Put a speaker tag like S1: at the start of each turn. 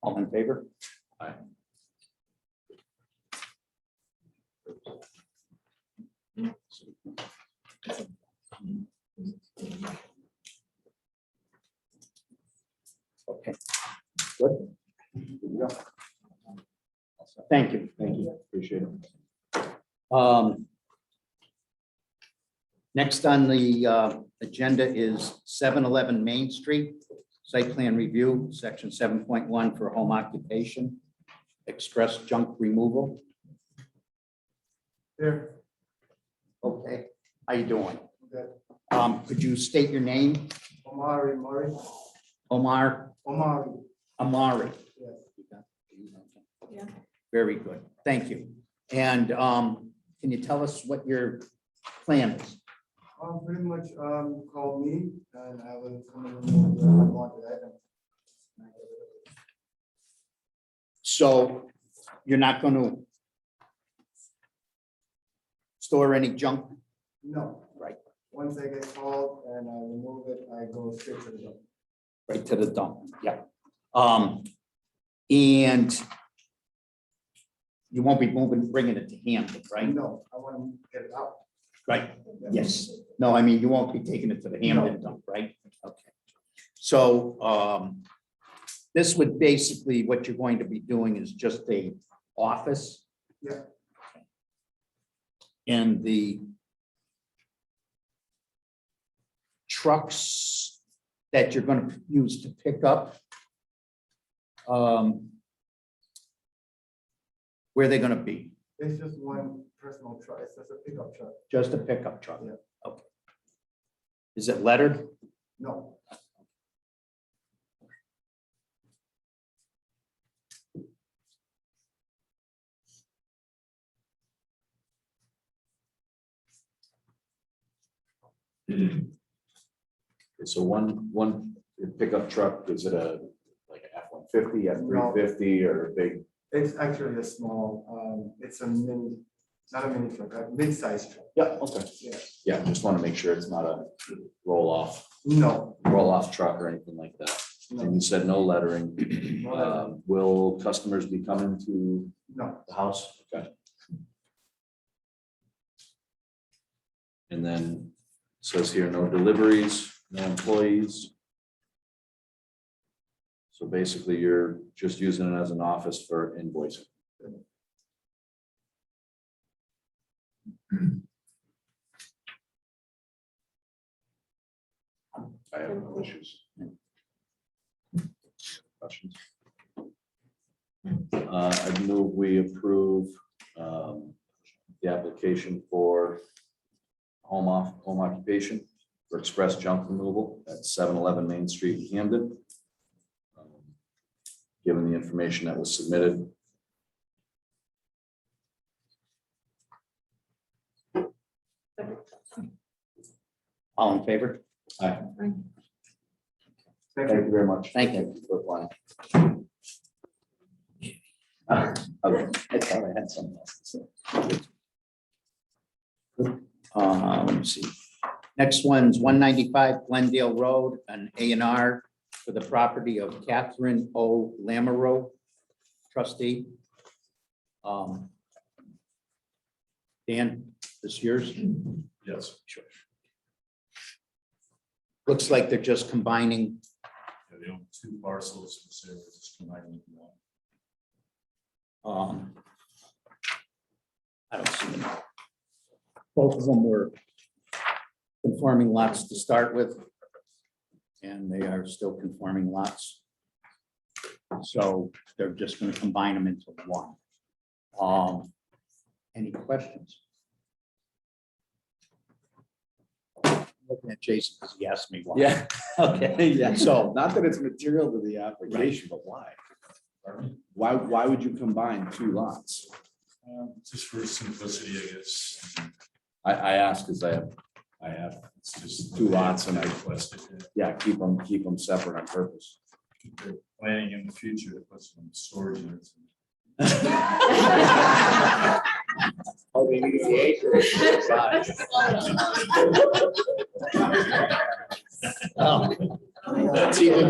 S1: All in favor?
S2: Aye.
S1: Okay, good. Good to go. Thank you. Thank you. Appreciate it. Um, Next on the uh, agenda is seven eleven Main Street site plan review, section seven point one for home occupation, express junk removal.
S3: There,
S1: Okay, how you doing?
S3: Good.
S1: Um, could you state your name?
S3: Omari, Murray,
S1: Omar
S3: Omari,
S1: Amari.
S3: yes.
S4: Yeah.
S1: Very good, thank you. And, um, can you tell us what your plan is?
S3: Um, pretty much, um, call me and I will come in and want that.
S1: So you're not gonna store any junk?
S3: No.
S1: Right.
S3: Once I get called and I remove it, I go straight to the dump.
S1: Right to the dump, yeah. Um, and you won't be moving, bringing it to Hampton, right?
S3: No, I want to get it out.
S1: Right, yes. No, I mean, you won't be taking it to the Hampton dump, right? Okay. So, um, this would basically, what you're going to be doing is just a office.
S3: Yeah.
S1: And the trucks that you're gonna use to pick up. Um, where are they gonna be?
S3: It's just one personal truck, it's just a pickup truck,
S1: Just a pickup truck?
S3: Yeah.
S1: Okay. Is it lettered?
S3: no.
S2: So one, one pickup truck, is it a, like an F one fifty, F three
S3: No.
S2: fifty, or a big?
S3: It's actually a small, um, it's a mini, not a mini truck, a mid-sized truck,
S2: Yeah, okay.
S3: Yeah.
S2: Yeah, just want to make sure it's not a roll off,
S3: no,
S2: roll off truck or anything like that. And
S3: no,
S2: you said no lettering.
S3: No lettering.
S2: Um, Will customers be coming to
S3: no,
S2: the house? Okay. And then it says here, no deliveries, no employees. So basically, you're just using it as an office for invoicing. I have no issues. Questions? Uh, I move we approve, um, the application for home off, home occupation for express junk removal at seven eleven Main Street, in Camden. Given the information that was submitted.
S1: All in favor?
S3: thank you.
S2: Thank you very much.
S1: Thank you.
S2: For applying. Uh, okay, I thought I had something else to say.
S1: Uh, let me see. Next one's one ninety-five Glendale Road, an A and R for the property of Catherine O. Lamoureux, trustee. Um, Dan, this yours?
S5: Yes,
S1: Looks like they're just combining,
S5: yeah, they own two parcels, and so we're just combining into one.
S1: um, I don't see them. Both of them were conforming lots to start with. And they are still conforming lots. So they're just gonna combine them into one. Um, any questions? Looking at Jason, because he asked me why.
S2: Yeah,
S1: okay,
S2: yeah.
S1: So-
S2: Not that it's material to the application, but why? Why, why would you combine two lots?
S5: Um, Just for simplicity, I guess,
S2: I, I ask because I have, I have,
S5: it's just.
S2: Two lots and I-
S5: Requested, uh,
S2: yeah, keep them, keep them separate on purpose.
S5: keep their planning in the future, to put some storage units. in.
S2: Oh, they need the acre.
S1: Um,
S2: That's even